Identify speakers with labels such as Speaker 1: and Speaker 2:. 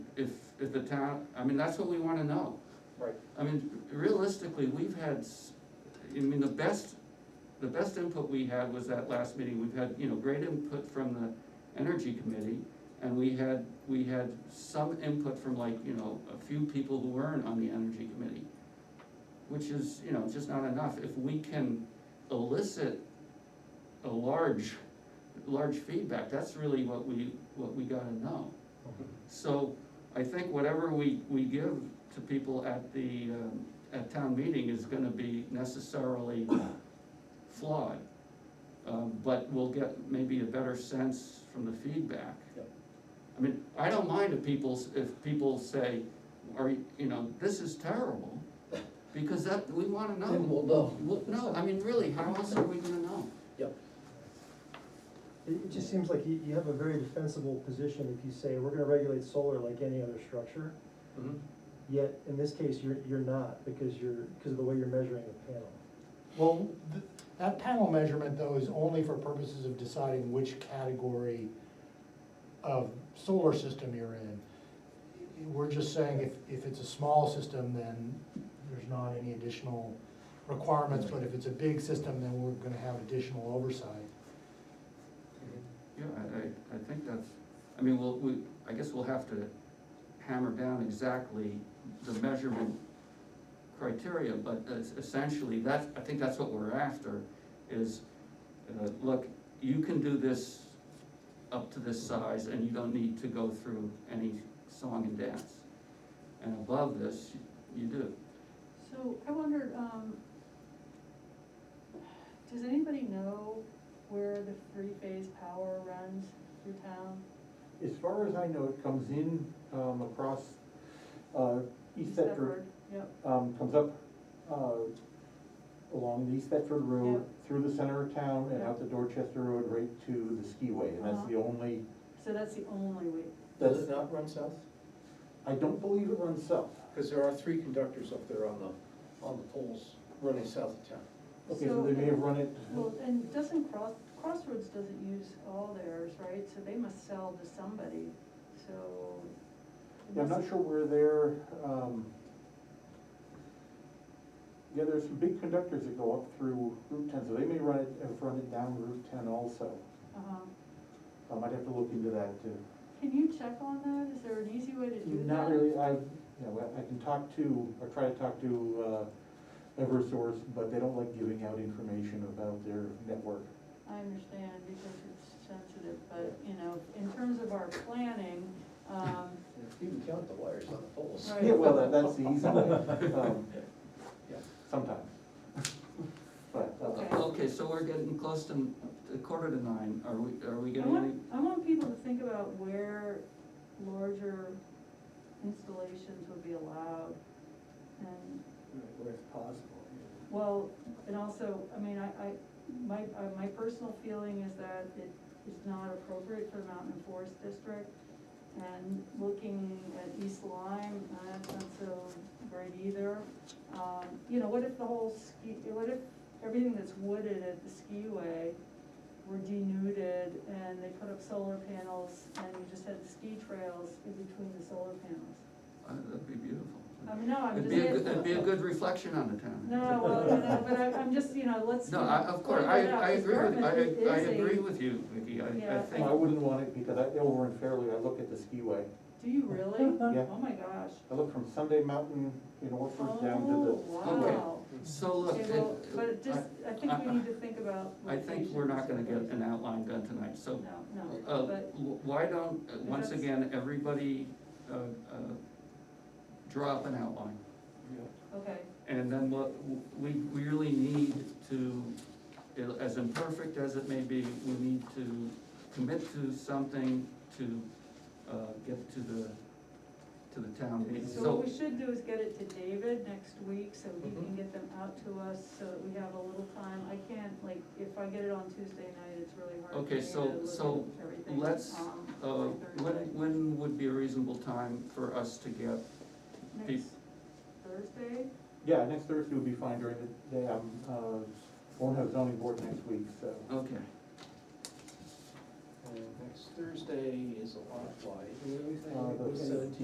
Speaker 1: Did the town, I mean, that's what we wanna know.
Speaker 2: Right.
Speaker 1: I mean, realistically, we've had, s- I mean, the best, the best input we had was that last meeting, we've had, you know, great input from the energy committee. And we had, we had some input from like, you know, a few people who weren't on the energy committee. Which is, you know, just not enough, if we can elicit a large, large feedback, that's really what we, what we gotta know. So I think whatever we, we give to people at the, um, at town meeting is gonna be necessarily flawed. Um, but we'll get maybe a better sense from the feedback.
Speaker 2: Yep.
Speaker 1: I mean, I don't mind if people, s- if people say, are, you you know, this is terrible, because that, we wanna know.
Speaker 2: Then we'll know.
Speaker 1: Well, no, I mean, really, how else are we gonna know?
Speaker 2: Yep.
Speaker 3: It, it just seems like you, you have a very defensible position if you say, we're gonna regulate solar like any other structure.
Speaker 2: Mm-hmm.
Speaker 3: Yet, in this case, you're, you're not, because you're, because of the way you're measuring the panel.
Speaker 4: Well, th- that panel measurement though is only for purposes of deciding which category of solar system you're in. We're just saying if, if it's a small system, then there's not any additional requirements, but if it's a big system, then we're gonna have additional oversight.
Speaker 2: Mm-hmm.
Speaker 1: Yeah, I, I, I think that's, I mean, we'll, we, I guess we'll have to hammer down exactly the measurement criteria, but es- essentially, that's, I think that's what we're after, is, uh, look, you can do this up to this size, and you don't need to go through any song and dance. And above this, you do.
Speaker 5: So I wondered, um, does anybody know where the free phase power runs through town?
Speaker 6: As far as I know, it comes in, um, across, uh, East Thetford,
Speaker 5: Thetford, Yep,
Speaker 6: um, comes up, uh, along the East Thetford Road, through the center of town and out the Dorchester Road right to the skiway, and that's the only,
Speaker 5: so that's the only way,
Speaker 2: Does it
Speaker 6: that's,
Speaker 2: not run south?
Speaker 6: I don't believe it runs south.
Speaker 2: Because there are three conductors up there on the, on the poles running south of town.
Speaker 6: Okay, so they may have run it,
Speaker 5: well, and doesn't Cross, Crossroads doesn't use all theirs, right? So they must sell to somebody, so. it
Speaker 6: yeah, I'm not
Speaker 5: must-
Speaker 6: sure where they're, um, yeah, there's some big conductors that go up through Route ten, so they may run it, have run it down Route ten also.
Speaker 5: Uh-huh.
Speaker 6: I might have to look into that too.
Speaker 5: Can you check on that? Is there an easy way to do that?
Speaker 6: Not really, I, you know, I can talk to, or try to talk to, uh, Eversource, but they don't like giving out information about their network.
Speaker 5: I understand because it's sensitive, but, you know, in terms of our planning, um,
Speaker 2: You can count the wires on the poles.
Speaker 5: Right.
Speaker 6: Yeah, well, that, that's the easy way, um, sometimes. But, uh,
Speaker 5: Okay.
Speaker 1: Okay, so we're getting close to to quarter to nine, are we, are we
Speaker 5: I
Speaker 1: getting any?
Speaker 5: want, I want people to think about where larger installations would be allowed. And,
Speaker 2: Where it's possible.
Speaker 5: well, and also, I mean, I, I, my, uh, my personal feeling is that it is not appropriate for Mountain and Forest District. And looking at East Lyme, uh, that's not so great either. Um, you know, what if the whole ski, what if everything that's wooded at the skiway were denuded and they put up solar panels and you just had ski trails in between the solar panels?
Speaker 1: Uh, That'd be beautiful.
Speaker 5: I mean, no, I'm
Speaker 1: It'd
Speaker 5: Uh, just.
Speaker 1: be, a
Speaker 5: saying-
Speaker 1: good- it'd be a good reflection on the town.
Speaker 5: No, well, no, no, but I, I'm just, you know, let's.
Speaker 1: No, I, of course, I, I agree with, I, I agree with you, Vicky, I, I
Speaker 5: Yeah.
Speaker 6: I
Speaker 1: think,
Speaker 6: wouldn't want it, because I, over in Fairleigh, I look at the skiway,
Speaker 5: Do you really?
Speaker 6: Yeah.
Speaker 5: Oh, my gosh.
Speaker 6: I look from Sunday Mountain in Orford down
Speaker 5: Oh,
Speaker 6: to
Speaker 5: wow.
Speaker 1: so look,
Speaker 5: Okay, well, but it
Speaker 1: it-
Speaker 5: just, I think we need to think about.
Speaker 1: I, I think we're not gonna get
Speaker 5: locations.
Speaker 1: an outline done tonight, so,
Speaker 5: No,
Speaker 1: uh,
Speaker 5: no, but,
Speaker 1: why don't, uh, once
Speaker 5: that's-
Speaker 1: again, everybody, uh, uh, draw up an outline.
Speaker 5: okay,
Speaker 1: And then what, we, we really need to, as imperfect as it may be, we need to commit to something to, uh, get to the, to the town meeting.
Speaker 5: so what we should do is get it to David next week, so he
Speaker 1: Mm-hmm.
Speaker 5: can get them out to us, so that we have a little time. I can't, like, if I get it on Tuesday night, it's really hard for
Speaker 1: Okay,
Speaker 5: me
Speaker 1: so-
Speaker 5: to
Speaker 1: so
Speaker 5: look at everything,
Speaker 1: let's,
Speaker 5: um, by
Speaker 1: Uh, when,
Speaker 5: Thursday.
Speaker 1: when would be a reasonable time for us to get, peop-
Speaker 5: Next Thursday?
Speaker 6: the, yeah, next Thursday would be fine during the day, I'm, uh, won't have zoning board next week, so. uh,
Speaker 1: okay,
Speaker 2: And next Thursday is a lot of Um, fly.
Speaker 6: Uh, the
Speaker 2: Seventeenth.